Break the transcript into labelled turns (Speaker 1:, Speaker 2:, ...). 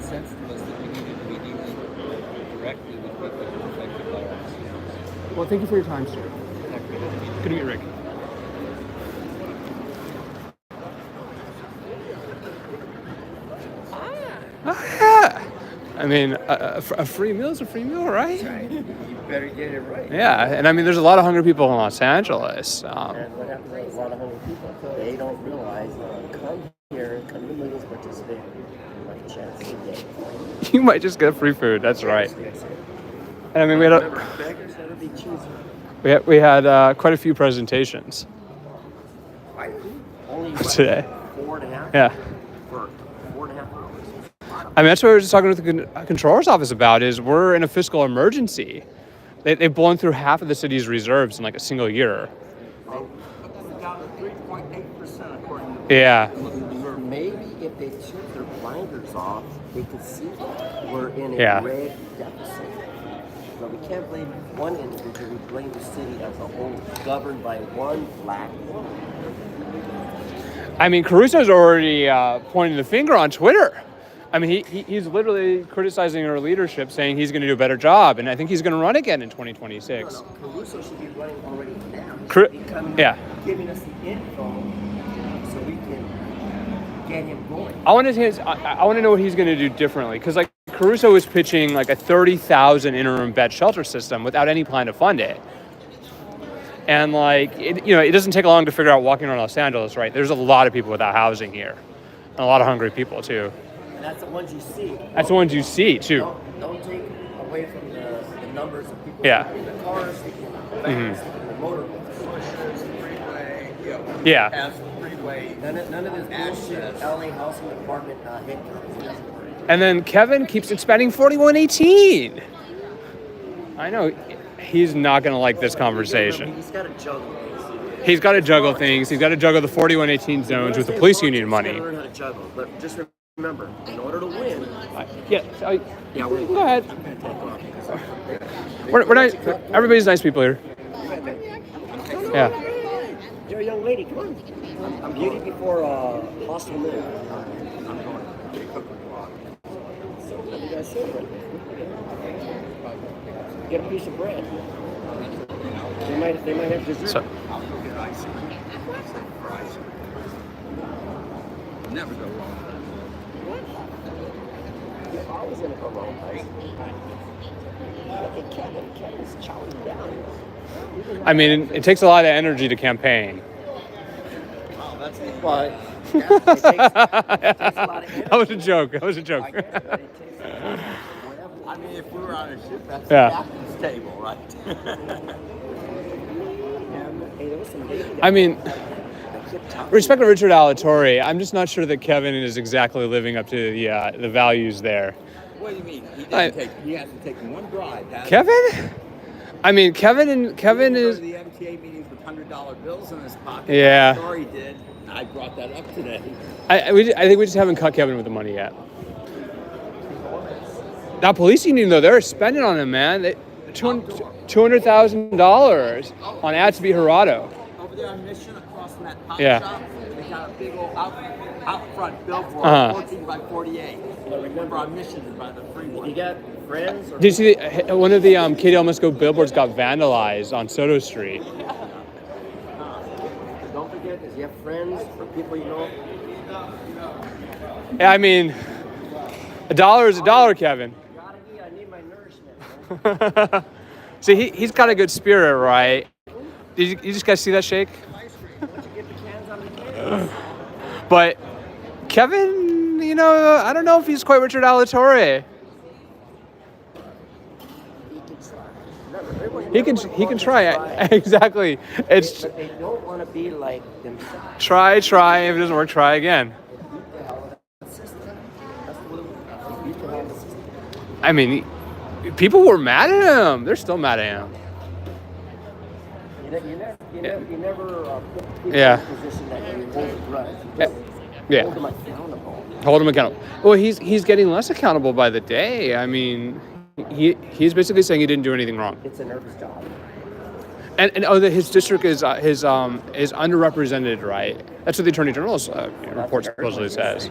Speaker 1: sense to us that we needed to be dealing directly with people who are affected by our diseases.
Speaker 2: Well, thank you for your time, sir. Good to meet you, Rick. Ah. I mean, a, a- a free meal is a free meal, right?
Speaker 1: You better get it right.
Speaker 2: Yeah, and I mean, there's a lot of hungry people in Los Angeles. Um,
Speaker 3: And what happens is a lot of hungry people, they don't realize, come here, come to Wiggles, participate, like a chance to get.
Speaker 2: you might just get free food. That's right.
Speaker 3: That's it.
Speaker 2: And I mean, we had a,
Speaker 3: Remember, beggars never be choosers.
Speaker 2: we had, we had uh, quite a few presentations
Speaker 3: I only what,
Speaker 2: today.
Speaker 3: four and a half
Speaker 2: Yeah.
Speaker 3: for four and a half hours.
Speaker 2: I mean, that's what I was just talking with the con- uh, controller's office about. Is we're in a fiscal emergency. They, they've blown through half of the city's reserves in like a single year.
Speaker 3: Down to three point eight percent according to.
Speaker 2: Yeah.
Speaker 3: Maybe if they took their blinders off, they could see that we're in a
Speaker 2: Yeah.
Speaker 3: red deficit. But we can't blame one individual, we blame the city as a whole, governed by one black woman.
Speaker 2: I mean, Caruso's already uh, pointing the finger on Twitter. I mean, he, he, he's literally criticizing our leadership, saying he's going to do a better job, and I think he's going to run again in 2026.
Speaker 3: No, no, Caruso should be running already now. He
Speaker 2: Cru-
Speaker 3: should be coming-
Speaker 2: yeah.
Speaker 3: Giving us the info so we can get him going.
Speaker 2: I want to his, I, I want to know what he's going to do differently, because like Caruso was pitching like a 30,000 interim bed shelter system without any plan to fund it. And like, it, you know, it doesn't take long to figure out walking around Los Angeles, right? There's a lot of people without housing here, and a lot of hungry people too.
Speaker 3: And that's the ones you see.
Speaker 2: That's the ones you see too.
Speaker 3: Don't, don't take away from the, the numbers of people.
Speaker 2: Yeah. Mm-hmm.
Speaker 3: sleeping In the cars, sleeping in the vans, sleeping in the motorhomes.
Speaker 2: Yeah.
Speaker 3: None of, none of this bullshit LA housing department uh, income.
Speaker 2: And then Kevin keeps expanding 4118. I know he's not going to like this conversation.
Speaker 3: He's got to juggle. things.
Speaker 2: He's got to juggle things. He's got to juggle the 4118 zones with the police union
Speaker 3: He's
Speaker 2: money.
Speaker 3: gotta learn how to juggle, but just remember, in order to win,
Speaker 2: I- Yeah, I-
Speaker 3: yeah, we're.
Speaker 2: go ahead.
Speaker 3: I'm gonna take off because I'm-
Speaker 2: We're, we're nice. Everybody's nice people here. Yeah.
Speaker 3: You're a young lady, come on. I'm beauty before uh, hostile moon. You guys should have. Get a piece of bread. They might, they might have dessert.
Speaker 2: So,
Speaker 1: Never go wrong.
Speaker 3: You're always gonna go wrong, guys. Look at Kevin, Kevin's chowing down.
Speaker 2: I mean, it takes a lot of energy to campaign.
Speaker 3: But, it takes, it takes a lot of energy.
Speaker 2: That was a joke. That was a joke.
Speaker 3: But it takes a lot of whatever.
Speaker 1: I mean, if we were on a ship, that's
Speaker 2: Yeah.
Speaker 1: the captain's table, right?
Speaker 3: Hey, there was some lady that-
Speaker 2: I mean,
Speaker 3: I kept talking.
Speaker 2: respect to Richard Alatorre, I'm just not sure that Kevin is exactly living up to the, uh, the values there.
Speaker 1: What do you mean? He didn't
Speaker 2: I-
Speaker 1: take. He hasn't taken one bribe. has he?
Speaker 2: Kevin? I mean, Kevin and Kevin
Speaker 1: He didn't go
Speaker 2: is.
Speaker 1: to the MTA meetings with hundred dollar bills in his pocket.
Speaker 2: Yeah.
Speaker 1: Sorry, did. I brought that up today.
Speaker 2: I, I- we, ju- I think we just haven't cut Kevin with the money yet. That police union though, they're spending on him, man. They, two hundred thousand dollars on Atsby Hirado.
Speaker 1: Over there on Mission, across from that pop
Speaker 2: Yeah.
Speaker 1: shop, they got a big old out, out front billboard,
Speaker 2: Uh-huh.
Speaker 1: 14 by 48. I remember on Mission and by the freeway.
Speaker 3: You got friends or
Speaker 2: Did you see the, one of the um, Katie Elmasco billboards got vandalized on Soto Street?
Speaker 3: Don't forget, if you have friends or people you know,
Speaker 2: I mean, a dollar is a dollar, Kevin.
Speaker 3: gotta eat. I need my nourishment.
Speaker 2: See, he, he's got a good spirit, right? Did you, you just guys see that shake?
Speaker 3: Once you get the cans out of the can,
Speaker 2: But Kevin, you know, I don't know if he's quite Richard Alatorre.
Speaker 3: he can try. Remember, everyone-
Speaker 2: He can
Speaker 3: everyone
Speaker 2: he can
Speaker 3: wants to
Speaker 2: try it. exactly. It's
Speaker 3: But they don't want to be like themselves.
Speaker 2: try, try. If it doesn't work, try again.
Speaker 3: Beat the hell out of the system. That's the way we- we beat the hell out of the system.
Speaker 2: I mean, people were mad at him. They're still mad at him.
Speaker 3: You ne- you never, you never, you never uh, put people
Speaker 2: Yeah.
Speaker 3: in a position that you hold a grudge. You
Speaker 2: Yeah.
Speaker 3: just
Speaker 2: Yeah.
Speaker 3: Hold them accountable.
Speaker 2: Hold him accountable. Well, he's he's getting less accountable by the day. I mean, he he's basically saying he didn't do anything wrong.
Speaker 3: It's a nervous job.
Speaker 2: And, and oh, that his district is uh, his um is underrepresented, right? That's what the attorney general's uh, report supposedly says.